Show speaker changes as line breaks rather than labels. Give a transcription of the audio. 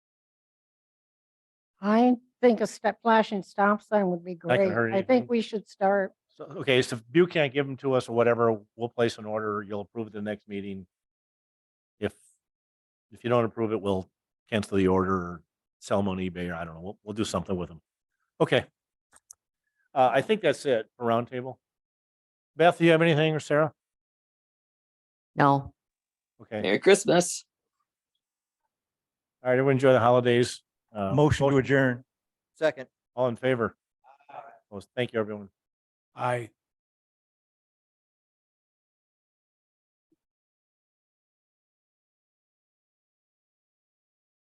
I think a step flashing stop sign would be
Not gonna
great.
hurt
I
anything.
think we should start.
So, okay, so if you can't give them to us or whatever, we'll place an order, you'll approve it the next meeting. If, if you don't approve it, we'll cancel the order, or sell them on eBay, or I don't know, we'll, we'll do something with them. Okay. Uh, I think that's it for roundtable. Beth, do you have anything or Sarah?
No,
Okay,
Merry Christmas.
all right, everyone enjoy the holidays. Uh,
Motion to adjourn.
Second.
All in favor? Well, Thank you, everyone.
Aye.